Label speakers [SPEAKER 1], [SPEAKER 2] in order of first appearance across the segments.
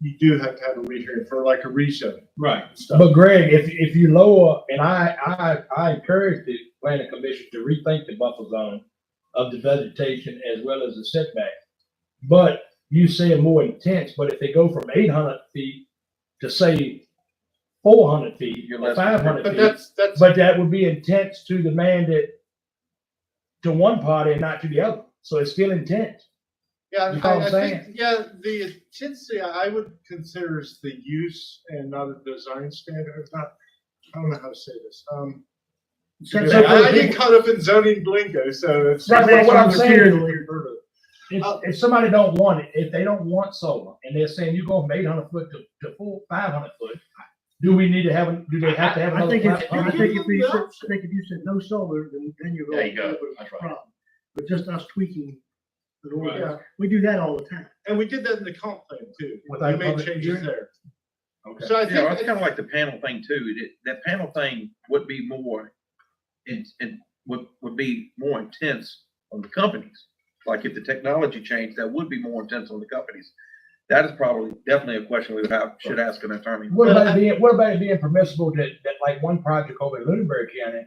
[SPEAKER 1] you do have to have a rehearing for like a rezone
[SPEAKER 2] Right.
[SPEAKER 1] stuff.
[SPEAKER 3] But Greg, if, if you lower, and I, I, I encourage the planning commission to rethink the buffer zone of the vegetation as well as the setback. But you say more intense, but if they go from eight hundred feet to say four hundred feet,
[SPEAKER 4] You're
[SPEAKER 3] or
[SPEAKER 4] less-
[SPEAKER 3] five
[SPEAKER 1] But
[SPEAKER 3] hundred feet,
[SPEAKER 1] that's, that's,
[SPEAKER 3] but that would be intense to the man that to one party and not to the other. So it's still intense.
[SPEAKER 1] yeah,
[SPEAKER 3] you know what
[SPEAKER 1] I, I
[SPEAKER 3] I'm
[SPEAKER 1] think, yeah, the intensity I would consider is the use and not a design standard, It's not, I don't know how to say this, um.
[SPEAKER 3] So- so
[SPEAKER 1] I I
[SPEAKER 3] for-
[SPEAKER 1] get caught up in zoning lingo, so it's.
[SPEAKER 3] Right, but what I'm saying is-
[SPEAKER 1] Roberta.
[SPEAKER 3] If,
[SPEAKER 1] Oh.
[SPEAKER 3] if somebody don't want it, if they don't want solar, and they're saying you go from eight hundred foot to, to full five hundred foot, do we need to have, a- do they have to have
[SPEAKER 5] I
[SPEAKER 3] another?
[SPEAKER 5] think if,
[SPEAKER 3] plat-
[SPEAKER 5] I
[SPEAKER 3] uh,
[SPEAKER 5] think if you said, I think if you said no solar, then, then you're
[SPEAKER 4] There
[SPEAKER 5] going
[SPEAKER 4] you
[SPEAKER 5] to have
[SPEAKER 4] go.
[SPEAKER 5] a
[SPEAKER 4] That's right.
[SPEAKER 5] problem. But just us tweaking the
[SPEAKER 1] Yeah,
[SPEAKER 5] ordinance, we do that all the time.
[SPEAKER 1] and we did that in the comp plan too, we
[SPEAKER 3] Without
[SPEAKER 1] made
[SPEAKER 3] public
[SPEAKER 1] changes
[SPEAKER 3] hearing?
[SPEAKER 1] there,
[SPEAKER 3] Okay.
[SPEAKER 1] so I
[SPEAKER 4] Yeah, that's
[SPEAKER 1] think,
[SPEAKER 4] kind of like the panel thing too. It- That panel thing would be more, it, it would, would be more intense on the companies. Like if the technology changed, that would be more intense on the companies. That is probably definitely a question we would have, should ask an attorney.
[SPEAKER 3] What about it being, what about it being permissible that, that like one project over in Lunenburg County?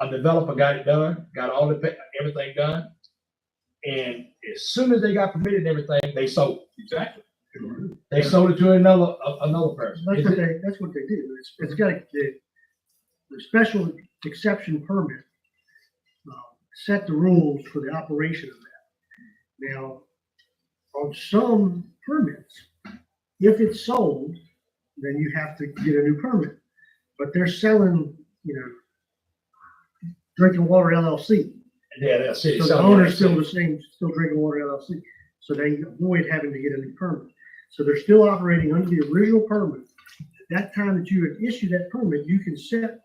[SPEAKER 3] A developer got it done, got all the, pa- everything done, and as soon as they got permitted and everything, they sold. Exactly. They sold it to another, a- another person.
[SPEAKER 5] That's
[SPEAKER 3] Is
[SPEAKER 5] what
[SPEAKER 3] it-
[SPEAKER 5] they, that's what they do. It's, it's got the, the special exception permit. uh, Set the rules for the operation of that. Now, on some permits, if it's sold, then you have to get a new permit. But they're selling, you know, drinking water LLC.
[SPEAKER 3] Yeah, that's it.
[SPEAKER 5] So the owner's still the same, still drinking water LLC, so they avoid having to get a new permit. So they're still operating under the original permit. At That time that you had issued that permit, you can set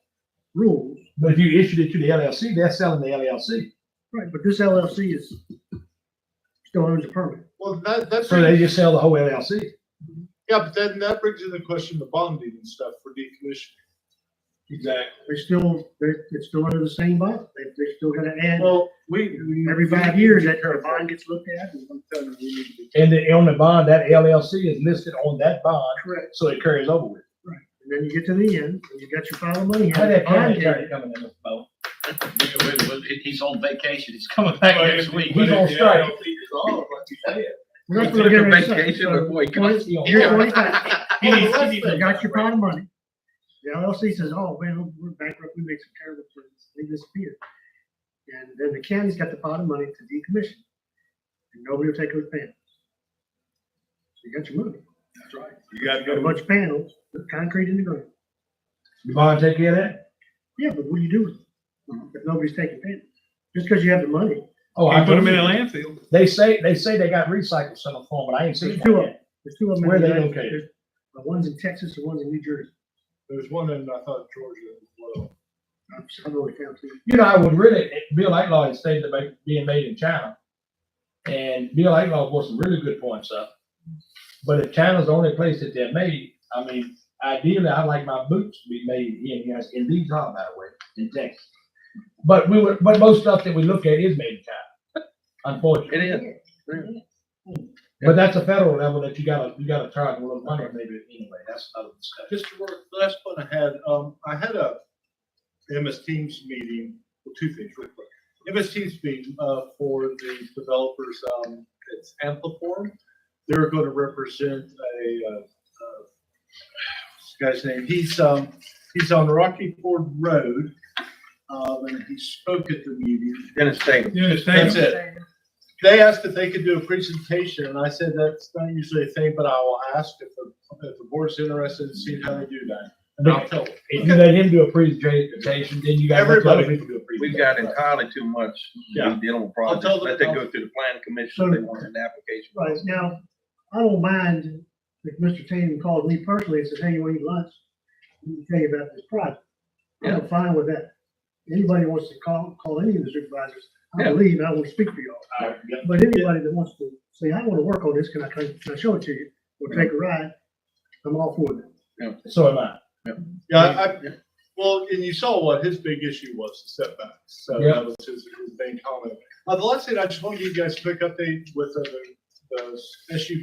[SPEAKER 5] rules,
[SPEAKER 3] But if you issued it to the LLC, they're selling the LLC.
[SPEAKER 5] right, but this LLC is, still owns the permit.
[SPEAKER 1] well, that, that's.
[SPEAKER 3] So they just sell the whole LLC.
[SPEAKER 1] Yeah, but then that brings in the question of bonding and stuff for decommissioning.
[SPEAKER 3] Exactly.
[SPEAKER 5] They still, they're, it's still under the same bond, they, they're still gonna add,
[SPEAKER 1] Well, we. we-
[SPEAKER 5] every five years, that their bond gets looked at. and-
[SPEAKER 1] I'm telling you, we need to be-
[SPEAKER 3] And then on the bond, that LLC is listed on that bond,
[SPEAKER 5] Correct.
[SPEAKER 3] so it carries over with.
[SPEAKER 5] And then you get to the end, and you got your pile of money.
[SPEAKER 3] How that county
[SPEAKER 5] bond
[SPEAKER 3] attorney
[SPEAKER 5] in.
[SPEAKER 3] coming in this boat?
[SPEAKER 4] He's on vacation. He's coming back
[SPEAKER 3] He's on strike.
[SPEAKER 5] We're not gonna
[SPEAKER 4] Took a
[SPEAKER 5] generate something,
[SPEAKER 4] vacation
[SPEAKER 5] so-
[SPEAKER 4] before he comes.
[SPEAKER 3] He on
[SPEAKER 5] You're
[SPEAKER 3] strike.
[SPEAKER 5] twenty-five,
[SPEAKER 1] He needs- he needs-
[SPEAKER 5] They got your pot of money. The LLC says, oh, man, we're bankrupt, we made some terrible plans, they disappear. And then the county's got the pot of money to decommission. And nobody will take those panels. So You got your money,
[SPEAKER 2] That's right. You gotta
[SPEAKER 5] you got a bunch of panels, with concrete in the ground.
[SPEAKER 3] The bond take care of that?
[SPEAKER 5] Yeah, but what do you do with them? If nobody's taking panels, just because you have the money,
[SPEAKER 3] Oh, I
[SPEAKER 2] Can't put them in a
[SPEAKER 3] believe it.
[SPEAKER 2] landfill.
[SPEAKER 3] They say, they say they got recycled some form, but I ain't
[SPEAKER 5] there's
[SPEAKER 3] seen
[SPEAKER 5] two of
[SPEAKER 3] one
[SPEAKER 5] them,
[SPEAKER 3] yet.
[SPEAKER 5] there's two of them. in
[SPEAKER 3] Where are
[SPEAKER 5] the
[SPEAKER 3] they
[SPEAKER 5] United-
[SPEAKER 3] located?
[SPEAKER 5] there's- The one's in Texas, the one's in New Jersey.
[SPEAKER 1] There's one in, I thought, Georgia as well.
[SPEAKER 5] I've I've only found two.
[SPEAKER 3] You know, I would really, Bill Lightlaw had stated about being made in China. And Bill Lightlaw brought some really good points up. But if China's the only place that they're made, I mean, ideally, I'd like my boots to be made here in the United, in these hot, by the way, in Texas. But we were, but most stuff that we look at is made in China, unfortunately.
[SPEAKER 4] It is.
[SPEAKER 3] But that's a federal level that you gotta, you gotta charge a little money maybe anyway, that's another discussion.
[SPEAKER 1] Just to work, the last one I had, um, I had a MS Teams meeting, well, two things real quick. MS Teams meeting, uh, for the developers, um, it's Ampliform. They're gonna represent a, uh, uh, what's the guy's name, he's, um, he's on Rocky Ford Road. Um, and he spoke at the meeting.
[SPEAKER 4] Dennis Tatum.
[SPEAKER 2] You understand?
[SPEAKER 1] That's it. They asked if they could do a presentation, and I said, that's not usually a thing, but I will ask if the, if the board's interested in seeing how they do that. And I'll tell them.
[SPEAKER 3] If you let him do a presentation, then you gotta let the other people do a presentation.
[SPEAKER 4] We've got entirely too much
[SPEAKER 1] Yeah.
[SPEAKER 4] dealing with
[SPEAKER 1] I'll
[SPEAKER 4] projects.
[SPEAKER 1] tell
[SPEAKER 4] Let
[SPEAKER 1] them-
[SPEAKER 4] them go through the planning commission. if They want an application.
[SPEAKER 5] Right, now, I don't mind if Mr. Tatum called me personally and says, hey, you want to eat lunch? Let me tell you about this project. I'm fine with that. Anybody wants to call, call any of the supervisors, I
[SPEAKER 4] Yeah.
[SPEAKER 5] believe, I will speak for y'all.
[SPEAKER 3] All right, yeah.
[SPEAKER 5] But anybody that wants to say, I want to work on this, can I, can I show it to you? Or take a ride? I'm all for that.
[SPEAKER 3] So am I.
[SPEAKER 1] Yeah, I, I- well, and you saw what his big issue was, the setbacks, so
[SPEAKER 3] Yeah.
[SPEAKER 1] that was his his main comment. Uh, the last thing, I just want to give you guys a quick update with uh, the, the SU